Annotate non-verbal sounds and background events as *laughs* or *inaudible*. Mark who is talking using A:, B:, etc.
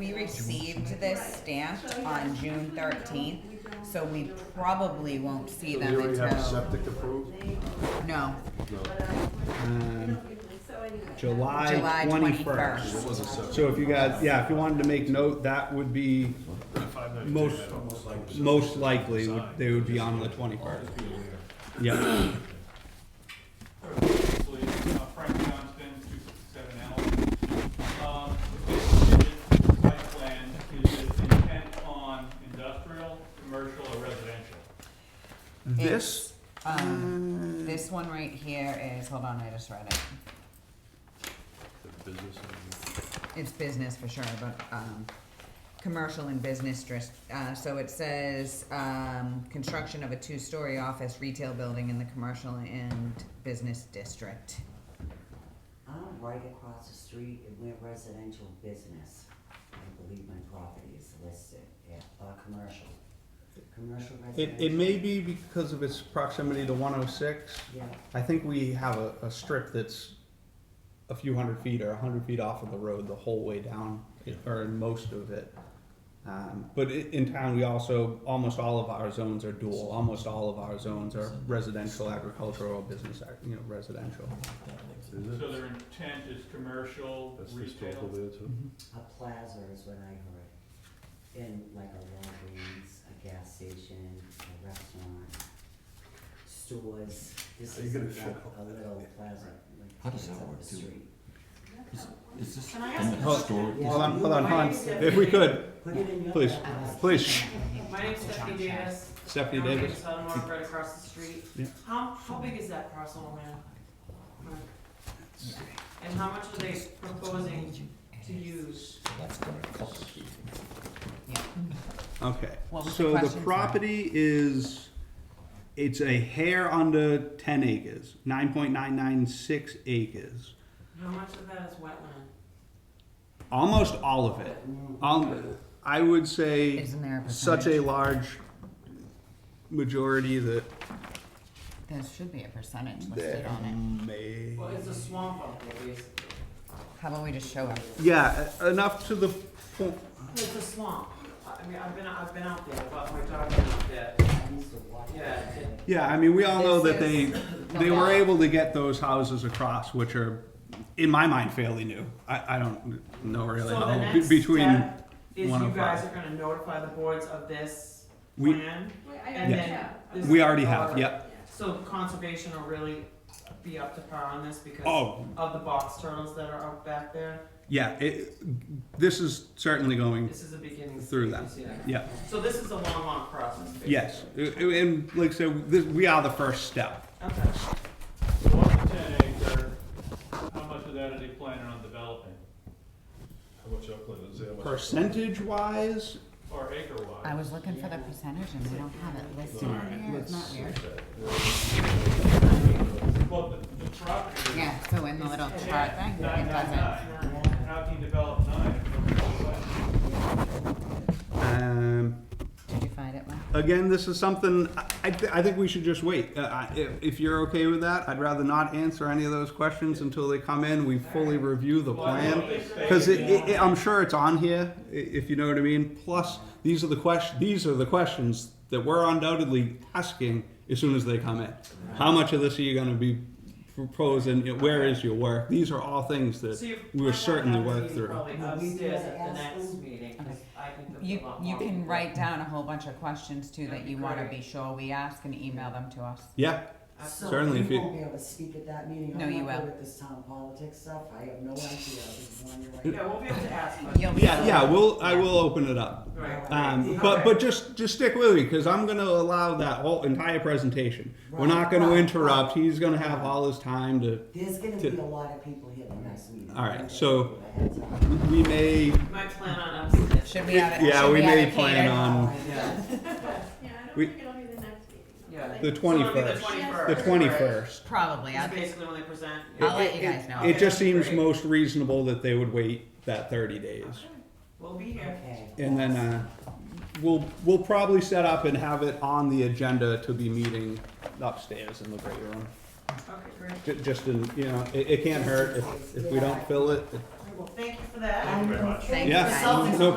A: We received this stamp on June thirteenth, so we probably won't see
B: Do we
A: them
B: already have
A: until,
B: septic approved?
A: no,
B: No.
C: Um,
A: July
C: July
A: twenty-first.
C: twenty-first.
B: What was it, septic?
C: So if you guys, yeah, if you wanted to make note, that would be most, most likely, would- they would be on the twenty-first. Yeah,
D: Obviously, uh, Frank Johnston, two sixty-seven Allen. Um, the basic condition of the site plan is its intent on industrial, commercial, or residential.
C: this,
A: Um, this one right here is, hold on, I just read it. It's business for sure, but, um, commercial and business dris- uh, so it says, um, construction of a two-story office retail building in the commercial and business district.
E: I'm right across the street and we're residential business. I believe my property is listed, yeah, uh, commercial. Commercial
C: it,
E: residential.
C: it may be because of its proximity to one oh six.
E: Yeah,
C: I think we have a, a strip that's a few hundred feet or a hundred feet off of the road the whole way down, or in most of it. Um, but i- in town, we also, almost all of our zones are dual, almost all of our zones are residential, agricultural, business, ag- you know, residential.
B: Is it?
D: So their intent is commercial,
B: That's the stuff over
D: retail.
B: there too?
E: a plaza is what I heard. In like a Walgreens, a gas station, a restaurant, stores. This
B: Are you
E: is
B: gonna
E: like
B: shut
E: a little plaza, like.
F: How does that
E: it's up
F: work,
E: the
F: too?
E: street.
F: Is this
G: Can I ask
F: in
G: a
F: the store?
E: Yeah.
C: Hold on, hold on, hon,
G: Why is
C: if we could,
E: Put it in your.
C: Please,
E: backyard.
C: please.
G: My name's Stephanie Davis.
C: Stephanie
G: I'm
C: Davis.
G: from Suddenmark, right across the street.
C: Yeah.
G: How, how big is that parcel of land? And how much are they proposing to use?
F: That's gonna complicate it.
C: Okay,
A: What was the
C: so the
A: question, sorry?
C: property is, it's a hair under ten acres, nine point nine nine six acres.
G: How much of that is wetland?
C: Almost all of it. Um, I would say
A: Isn't there a
C: such a
A: percentage?
C: large majority that
A: There should be a percentage listed
C: there
A: on it.
C: may.
G: Well, it's a swamp out there, basically.
A: How about we just show it?
C: Yeah, e- enough to the point.
G: It's a swamp. I I mean, I've been, I've been out there, but we're talking about that.
E: *laughs* I used to walk.
G: Yeah, it-
C: Yeah, I mean, we all know that they they were
A: Okay.
C: able to get those houses across, which are, in my mind, fairly new. I, I don't know
G: So
C: really
G: the
C: how, be-
G: next
C: between.
G: step is you
C: 105.
G: guys are gonna notify the boards of this
C: We-
G: plan?
C: Yeah.
G: And then
A: uh,
G: this.
C: We already have.
G: Alright.
C: Yep.
G: So conservation will really be up to par on this because
C: Oh,
G: of the box turtles that are out back there.
C: yeah. It, this is certainly going.
G: This is the beginning.
C: Mm. Through that.
G: stages, yeah.
C: Yeah.
G: So this is a long, long process. Basically.
C: Yes. And like I said, this, we are the first step.
G: Okay.
D: So of the ten acre, how much of that are they planning on developing,
B: How much upland is there? How much-
C: Percentage wise,
D: or acre
A: I
D: wise?
A: was looking for the percentage and we don't have it listed
B: All
A: on here, it's not weird.
D: Well, the, the property.
A: Yeah, so in the little
G: It's
A: chart thing, it
D: Nine, nine,
A: doesn't.
G: nine.
D: nine, how can you develop nine?
C: um,
A: Did you find it, Mike?
C: again, this is something I, I, th- I think we should just wait. Uh, I, if, if you're okay with that, I'd rather not answer any of those questions until they come in. We fully review the
D: Well, I don't know
C: plan
D: if they stay
C: because it,
D: in
C: it, it- I'm sure it's on here, i- if you know what I mean. Plus, these are the question these are the questions that we're undoubtedly asking as soon as they come in. How much of this are you going to be proposing? You know, Where is your work? These are all things that
G: So you
C: we will certainly work through.
G: Probably
E: Well, we
G: upstairs
E: gotta
G: at the
E: ask
G: next
E: them.
G: meeting 'cause I think there'll be
A: You,
G: a lot
A: you
G: more
A: can
G: people.
A: write down a whole bunch of questions too that
G: That'd
A: you
G: be
A: wanna
G: great.
A: be sure we ask and email them to us.
C: Yeah.
E: So
G: Absolutely.
C: Certainly,
E: you
C: if you-
E: won't be able to speak at that meeting.
A: No,
E: I'm
A: you
E: not good
A: will.
E: With this town politics stuff, I have no idea. I was wondering.
G: Yeah, we'll be able
A: *laughs*
G: to ask.
A: You'll
G: questions.
A: be-
C: Yeah, yeah, we'll, I will open it up.
G: Right.
C: Um, but, but just, just stick with me, cause I'm gonna allow that whole entire presentation. We're not gonna
E: Right.
C: interrupt, he's gonna have all his time to,
E: There's gonna
C: To-
E: be a lot of people here the next meeting.
C: All right, so-
E: That's all.
C: we may,
G: My plan on upstairs.
A: Should we have it?
C: yeah,
A: should
C: we
A: have
C: may
A: it
C: plan
A: catered?
C: on
G: Yeah.
H: Yeah, I don't
C: We-
H: think it'll be the next meeting.
G: Yeah.
C: the
G: So it'll be the
C: twenty-first, the
G: 21st.
C: twenty-first.
A: Probably,
G: It's
A: I'll,
G: basically when they present.
A: I'll let you guys know.
C: It just seems most reasonable that they would wait that thirty days.
G: We'll be here.
E: Okay.
C: And then, uh, we'll, we'll probably set up and have it on the agenda to be meeting upstairs in the great room.
G: Okay, great.
C: Ju- Just in, you know, it, it can't hurt if, if we don't fill it, it
I: Well, thank you for that.
J: Thank you very much.
G: Thank you
E: Yeah,
G: guys.
E: no